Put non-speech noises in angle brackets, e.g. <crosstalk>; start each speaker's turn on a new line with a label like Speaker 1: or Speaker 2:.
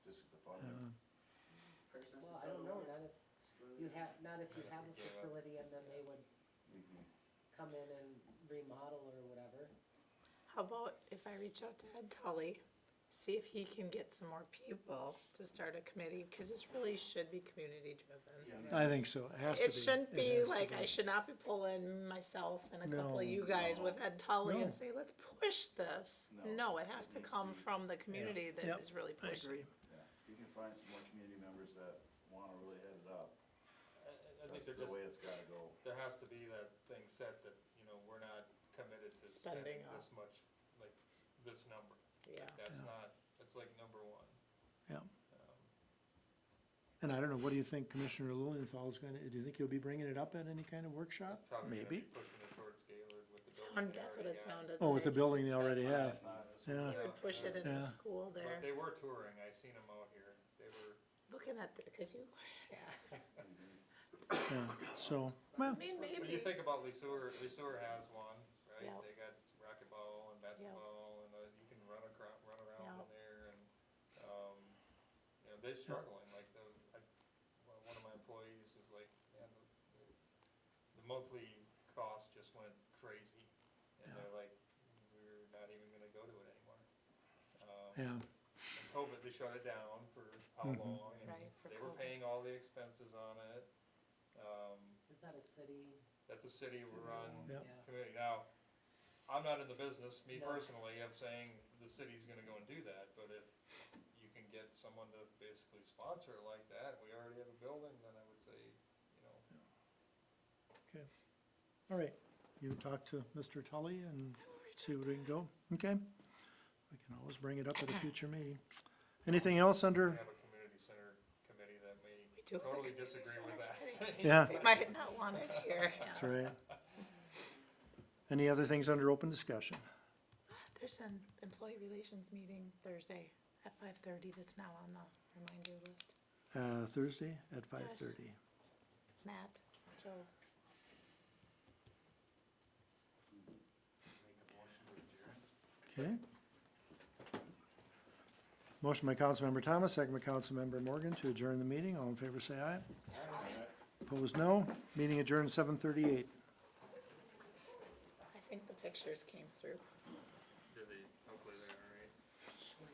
Speaker 1: no, not if you have, not if you have a facility and then they would come in and remodel or whatever.
Speaker 2: How about if I reach out to Ed Tully, see if he can get some more people to start a committee, because this really should be community driven.
Speaker 3: I think so, it has to be.
Speaker 2: It shouldn't be
Speaker 3: has to
Speaker 2: like, I should not be pulling myself and a couple of
Speaker 3: No.
Speaker 2: you guys with Ed Tully
Speaker 3: No.
Speaker 2: and say, let's push this.
Speaker 4: No.
Speaker 2: No, it has to come from the community
Speaker 3: Yep.
Speaker 2: that is really
Speaker 3: I
Speaker 2: pushing.
Speaker 3: agree.
Speaker 4: Yeah, if you can find some more community members that wanna really head it up,
Speaker 5: I- I, I think
Speaker 4: that's
Speaker 5: there
Speaker 4: the
Speaker 5: just,
Speaker 4: way it's gotta go.
Speaker 5: there has to be that thing set that, you know, we're not committed to
Speaker 2: Spending
Speaker 5: spending
Speaker 2: up.
Speaker 5: this much, like, this number.
Speaker 2: Yeah.
Speaker 5: That's
Speaker 3: Yeah.
Speaker 5: not, that's like number one.
Speaker 3: Yeah.
Speaker 5: Um,
Speaker 3: And I don't know, what do you think Commissioner Lilienthal's gonna, do you think he'll be bringing it up at any kind of workshop?
Speaker 5: Probably gonna
Speaker 3: Maybe.
Speaker 5: be pushing it towards Gaylord with the building.
Speaker 2: Sound,
Speaker 5: they
Speaker 2: that's what
Speaker 5: already
Speaker 2: it
Speaker 5: got.
Speaker 2: sounded like.
Speaker 3: Oh, with the building they already
Speaker 5: That's what I
Speaker 3: have.
Speaker 5: thought.
Speaker 3: Yeah.
Speaker 2: He would push it in
Speaker 3: Yeah.
Speaker 2: the school
Speaker 5: But
Speaker 2: there,
Speaker 5: they were touring, I seen them out here, they were,
Speaker 2: looking at, because you,
Speaker 3: Yeah, so, well,
Speaker 2: I mean,
Speaker 5: when you
Speaker 2: maybe. <laughs>
Speaker 5: think about Lesueur, Lesueur has one, right?
Speaker 2: Yeah.
Speaker 5: They got racquetball and basketball, and uh, you can run across, run around in there, and, um, you know, they're struggling, like, the, I, one one of my employees is like, man, the, the- the monthly cost just went crazy, and they're like, we're not even gonna go to it anymore. Um,
Speaker 3: yeah,
Speaker 5: and COVID, they shut it down for how
Speaker 3: Mhm.
Speaker 5: long, and
Speaker 2: Right, for
Speaker 5: they were
Speaker 2: COVID.
Speaker 5: paying all the expenses on it. Um,
Speaker 1: Is that a city?
Speaker 5: that's a city-run
Speaker 3: Yeah.
Speaker 1: Yeah.
Speaker 5: committee. Now, I'm not in the business, me
Speaker 1: No.
Speaker 5: personally, of saying the city's gonna go and do that, but if you can get someone to basically sponsor it like that, we already have a building, then I would say, you know,
Speaker 3: all right. You talk to Mr. Tully and see where we can go, okay? We can always bring it up at a future meeting. Anything else
Speaker 5: we
Speaker 3: under,
Speaker 5: have a community center committee that may
Speaker 2: We do have a
Speaker 5: totally
Speaker 2: community
Speaker 5: disagree
Speaker 2: center
Speaker 5: with that. <laughs>
Speaker 3: yeah,
Speaker 2: They might not want it here.
Speaker 3: that's right. Any other things under open discussion?
Speaker 2: There's an employee relations meeting Thursday at five thirty that's now on the reminder list.
Speaker 3: Uh, Thursday at five thirty.
Speaker 2: Matt, Joe.
Speaker 4: Make a motion to adjourn.
Speaker 3: Okay. Motion by Councilmember Thomas, second by Councilmember Morgan to adjourn the meeting. All in favor, say aye. Opposed, no. Meeting adjourned seven thirty-eight.
Speaker 2: I think the pictures came through.